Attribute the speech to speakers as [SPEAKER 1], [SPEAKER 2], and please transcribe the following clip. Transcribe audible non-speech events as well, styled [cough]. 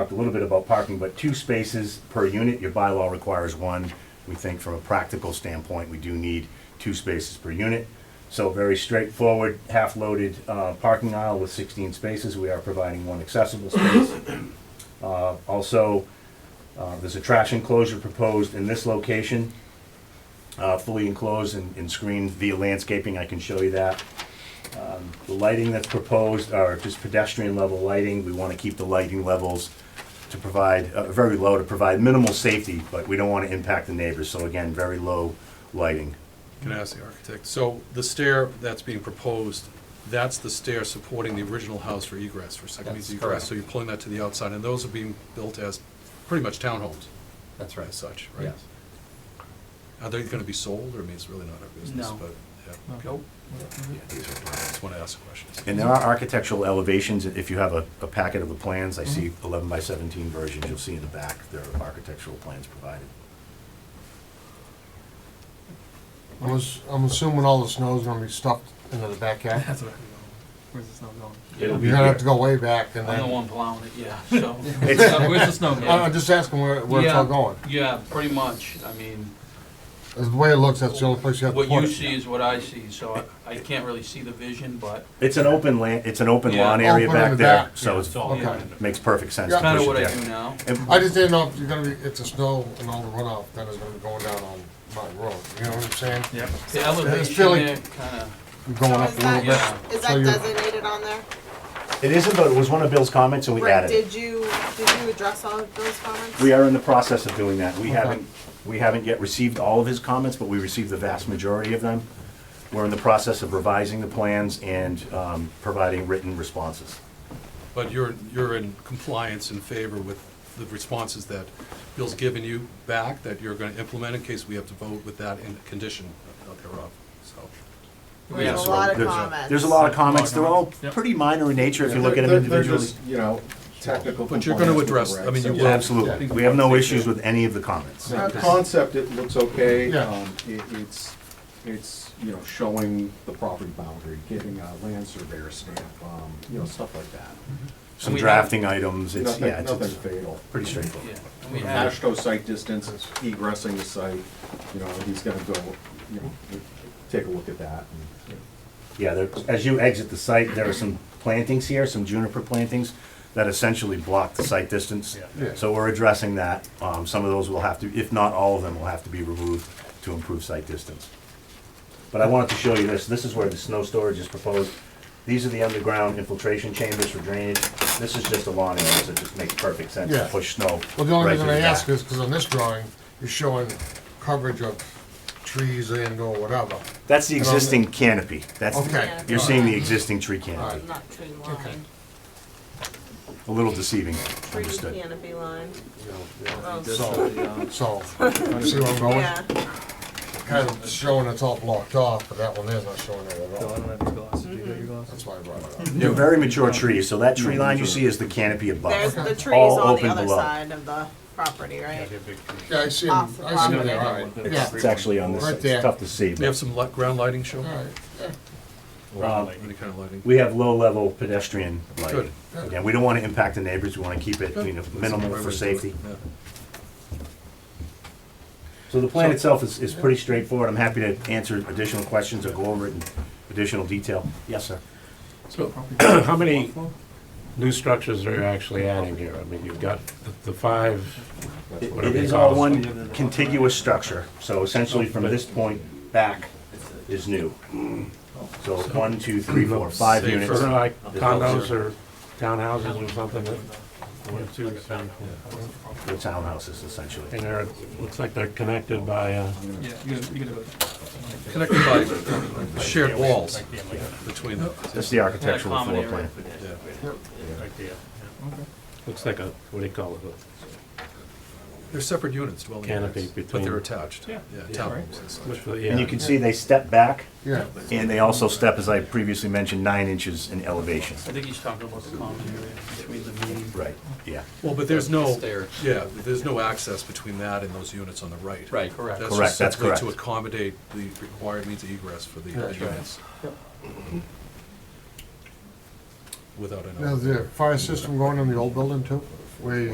[SPEAKER 1] talked a little bit about parking, but two spaces per unit, your bylaw requires one. We think from a practical standpoint, we do need two spaces per unit. So very straightforward, half-loaded uh, parking aisle with 16 spaces. We are providing one accessible space. [coughs] Uh, Also, uh, there's a trash enclosure proposed in this location, uh, fully enclosed and and screened via landscaping. I can show you that. Um, The lighting that's proposed are just pedestrian-level lighting. We want to keep the lighting levels to provide, uh, very low, to provide minimal safety, but we don't want to impact the neighbors. So again, very low lighting.
[SPEAKER 2] Can I ask the architect? So the stair that's being proposed, that's the stair supporting the original house for egress, for second means
[SPEAKER 3] That's
[SPEAKER 2] egress.
[SPEAKER 3] correct.
[SPEAKER 2] So you're pulling that to the outside, and those are being built as pretty much townhomes
[SPEAKER 3] That's
[SPEAKER 2] as such, right?
[SPEAKER 3] Yes.
[SPEAKER 2] Are they gonna be sold, or I mean, it's really not our business,
[SPEAKER 4] No.
[SPEAKER 2] but, yeah.
[SPEAKER 3] Nope.
[SPEAKER 2] Yeah, these are, I just wanna ask questions.
[SPEAKER 1] And there are architectural elevations, if you have a, a packet of the plans, I see
[SPEAKER 5] Mm-hmm.
[SPEAKER 1] eleven by seventeen versions, you'll see in the back, there are architectural plans provided.
[SPEAKER 5] I'm, ass- I'm assuming all the snow's gonna be stuffed into the backyard.
[SPEAKER 4] That's what I Where's the snow going?
[SPEAKER 1] It'll be
[SPEAKER 5] You're gonna have to
[SPEAKER 1] here.
[SPEAKER 5] go way back and
[SPEAKER 3] I'm the
[SPEAKER 5] then,
[SPEAKER 3] one plowing it, yeah, so.
[SPEAKER 1] It's-
[SPEAKER 3] Uh, Where's the
[SPEAKER 5] [coughs]
[SPEAKER 3] snow
[SPEAKER 5] I-
[SPEAKER 3] going?
[SPEAKER 5] I'm just asking where, where it's all
[SPEAKER 3] Yeah,
[SPEAKER 5] going.
[SPEAKER 3] Yeah, pretty much, I mean,
[SPEAKER 5] That's the way it looks, that's the only place you have to
[SPEAKER 3] what
[SPEAKER 5] put
[SPEAKER 3] you
[SPEAKER 5] it.
[SPEAKER 3] see is what I see, so I- I can't really see the vision, but
[SPEAKER 1] It's an open land, it's an open
[SPEAKER 3] Yeah.
[SPEAKER 1] lawn area
[SPEAKER 5] Open in
[SPEAKER 1] back
[SPEAKER 5] the
[SPEAKER 1] there,
[SPEAKER 5] back.
[SPEAKER 1] so it's,
[SPEAKER 3] all
[SPEAKER 5] Okay.
[SPEAKER 3] yeah.
[SPEAKER 1] makes perfect sense to
[SPEAKER 5] Yeah.
[SPEAKER 3] Kinda
[SPEAKER 1] push
[SPEAKER 3] what I
[SPEAKER 1] it
[SPEAKER 3] do
[SPEAKER 1] there.
[SPEAKER 3] now.
[SPEAKER 1] And
[SPEAKER 5] I just didn't know if you're gonna be, if the snow and all the runoff, then it's gonna be going down on my road, you know what I'm saying?
[SPEAKER 4] Yep.
[SPEAKER 3] The elevation
[SPEAKER 5] Philly.
[SPEAKER 3] there kinda,
[SPEAKER 5] You're Going
[SPEAKER 6] So
[SPEAKER 5] up
[SPEAKER 6] is
[SPEAKER 5] a little
[SPEAKER 6] that-
[SPEAKER 5] bit.
[SPEAKER 3] yeah.
[SPEAKER 6] Is
[SPEAKER 5] So
[SPEAKER 6] that
[SPEAKER 5] you-
[SPEAKER 6] designated on there?
[SPEAKER 1] It isn't, but it was one of Bill's comments and we
[SPEAKER 6] Right,
[SPEAKER 1] added it.
[SPEAKER 6] did you, did you address all of those comments?
[SPEAKER 1] We are in the process of doing that. We
[SPEAKER 5] Okay.
[SPEAKER 1] haven't, we haven't yet received all of his comments, but we received the vast majority of them. We're in the process of revising the plans and, um, providing written responses.
[SPEAKER 2] But you're, you're in compliance in favor with the responses that Bill's given you back, that you're gonna implement in case we have to vote with that in condition thereof, so.
[SPEAKER 6] We have
[SPEAKER 1] Yeah,
[SPEAKER 6] a
[SPEAKER 1] so
[SPEAKER 6] lot of
[SPEAKER 1] there's
[SPEAKER 6] comments.
[SPEAKER 1] There's a lot of comments, they're all
[SPEAKER 4] Yep.
[SPEAKER 1] pretty minor in nature if you look at them
[SPEAKER 7] They're- they're
[SPEAKER 1] individually.
[SPEAKER 7] just, You know, technical.
[SPEAKER 2] But you're gonna
[SPEAKER 7] components
[SPEAKER 2] address-
[SPEAKER 7] with
[SPEAKER 2] I mean,
[SPEAKER 7] the regs.
[SPEAKER 2] you
[SPEAKER 1] Yeah, Absolutely, we have no issues with any of the comments.
[SPEAKER 7] So the Concept, it looks okay.
[SPEAKER 5] Yeah.
[SPEAKER 7] Um, it, it's, it's, you know, showing the property boundary, giving a land surveyor stamp, um, you know, stuff like that.
[SPEAKER 1] Some
[SPEAKER 3] we have-
[SPEAKER 1] drafting items, it's,
[SPEAKER 7] Nothing,
[SPEAKER 1] yeah, it's-
[SPEAKER 7] nothing
[SPEAKER 1] it's
[SPEAKER 7] fatal.
[SPEAKER 1] pretty
[SPEAKER 3] yeah.
[SPEAKER 1] straightforward.
[SPEAKER 3] And we have,
[SPEAKER 7] Ashto site distance, egressing the site, you know, he's gonna go, you know, take a look at that. and-
[SPEAKER 1] Yeah, there, as you exit the site, there are some plantings here, some juniper plantings that essentially block the site distance.
[SPEAKER 5] Yeah.
[SPEAKER 1] So we're addressing that, um, some of those will have to, if not all of them, will have to be removed to improve site distance. But I wanted to show you this, this is where the snow storage is proposed. These are the underground infiltration chambers for drainage, this is just a lawn area, so it just makes perfect sense to
[SPEAKER 5] Yeah.
[SPEAKER 1] push snow.
[SPEAKER 5] Well, the only
[SPEAKER 1] right
[SPEAKER 5] reason
[SPEAKER 1] to
[SPEAKER 5] I
[SPEAKER 1] back.
[SPEAKER 5] ask is, cause on this drawing, you're showing coverage of trees and or whatever.
[SPEAKER 1] That's the
[SPEAKER 5] And on the-
[SPEAKER 1] existing canopy, that's,
[SPEAKER 5] um, Okay.
[SPEAKER 1] you're seeing the existing tree canopy,
[SPEAKER 6] Not tree
[SPEAKER 5] Okay.
[SPEAKER 6] line,
[SPEAKER 1] a little deceiving,
[SPEAKER 6] tree
[SPEAKER 1] understood.
[SPEAKER 6] canopy line.
[SPEAKER 5] You know, yeah.
[SPEAKER 6] Oh,
[SPEAKER 5] So, so, you see where I'm going?
[SPEAKER 6] Yeah,
[SPEAKER 5] Kind of showing it's all blocked off, but that one is not showing it at all. That's why I brought it up.
[SPEAKER 1] They're very mature trees, so that tree line you see is the canopy above.
[SPEAKER 6] there's the trees
[SPEAKER 1] All
[SPEAKER 6] on the
[SPEAKER 1] open
[SPEAKER 6] other
[SPEAKER 1] below.
[SPEAKER 6] side of the property, right?
[SPEAKER 5] Yeah, I see 'em.
[SPEAKER 6] Off the
[SPEAKER 5] I see 'em
[SPEAKER 6] property.
[SPEAKER 5] there, all right. Yeah.
[SPEAKER 1] It's it's actually on this,
[SPEAKER 5] Right
[SPEAKER 1] side.
[SPEAKER 5] there.
[SPEAKER 1] it's tough to see,
[SPEAKER 2] We have
[SPEAKER 1] but
[SPEAKER 2] some li- ground lighting show?
[SPEAKER 5] All right.
[SPEAKER 2] Ground lighting, Any kind of lighting?
[SPEAKER 1] we have low-level pedestrian lighting.
[SPEAKER 2] Good.
[SPEAKER 1] Again, we don't want to impact the neighbors, we want to keep it, you know, minimal for safety.
[SPEAKER 2] Yeah.
[SPEAKER 1] So the plan itself is, is pretty straightforward, I'm happy to answer additional questions or go over it in additional detail. Yes, sir.
[SPEAKER 8] So, [coughs] how many new structures are you actually adding here? I mean, you've got the- the five,
[SPEAKER 1] It it
[SPEAKER 8] Whatever you
[SPEAKER 1] is
[SPEAKER 8] call
[SPEAKER 1] all
[SPEAKER 8] it.
[SPEAKER 1] one contiguous structure, so essentially from this point back is new. So one, two, three, four, five
[SPEAKER 2] Safer.
[SPEAKER 1] units.
[SPEAKER 8] sort of like
[SPEAKER 1] There's
[SPEAKER 8] condos
[SPEAKER 1] no-
[SPEAKER 8] or townhouses or something that, one, two, three,
[SPEAKER 1] The townhouses essentially.
[SPEAKER 8] and they're, looks like they're connected by, uh,
[SPEAKER 4] Yeah, you gotta, you gotta go.
[SPEAKER 2] Connected by shared walls between them.
[SPEAKER 1] That's the
[SPEAKER 3] kinda
[SPEAKER 1] architectural
[SPEAKER 3] common
[SPEAKER 1] floor
[SPEAKER 3] area
[SPEAKER 1] plan.
[SPEAKER 3] for this.
[SPEAKER 8] looks like a, what do you call it?
[SPEAKER 2] They're separate units, dwelling
[SPEAKER 8] Canopy
[SPEAKER 2] units, but
[SPEAKER 8] between-
[SPEAKER 2] they're attached.
[SPEAKER 8] Yeah.
[SPEAKER 2] townhomes and such.
[SPEAKER 8] a- what's the-
[SPEAKER 1] And you
[SPEAKER 8] yeah.
[SPEAKER 1] can see they step back,
[SPEAKER 5] Yeah.
[SPEAKER 1] and they also step, as I previously mentioned, nine inches in elevation.
[SPEAKER 3] I think he's talking about the common area between the meeting.
[SPEAKER 1] Right, yeah.
[SPEAKER 2] Well, but there's no,
[SPEAKER 3] Stairs.
[SPEAKER 2] yeah, there's no access between that and those units on the right.
[SPEAKER 3] Right, correct.
[SPEAKER 2] That's
[SPEAKER 1] Correct,
[SPEAKER 2] just
[SPEAKER 1] that's
[SPEAKER 2] simply to
[SPEAKER 1] correct.
[SPEAKER 2] accommodate the required means of egress for the the
[SPEAKER 5] That's right.
[SPEAKER 2] units. Without an.
[SPEAKER 5] Now, is the fire system going in the old building too? Where you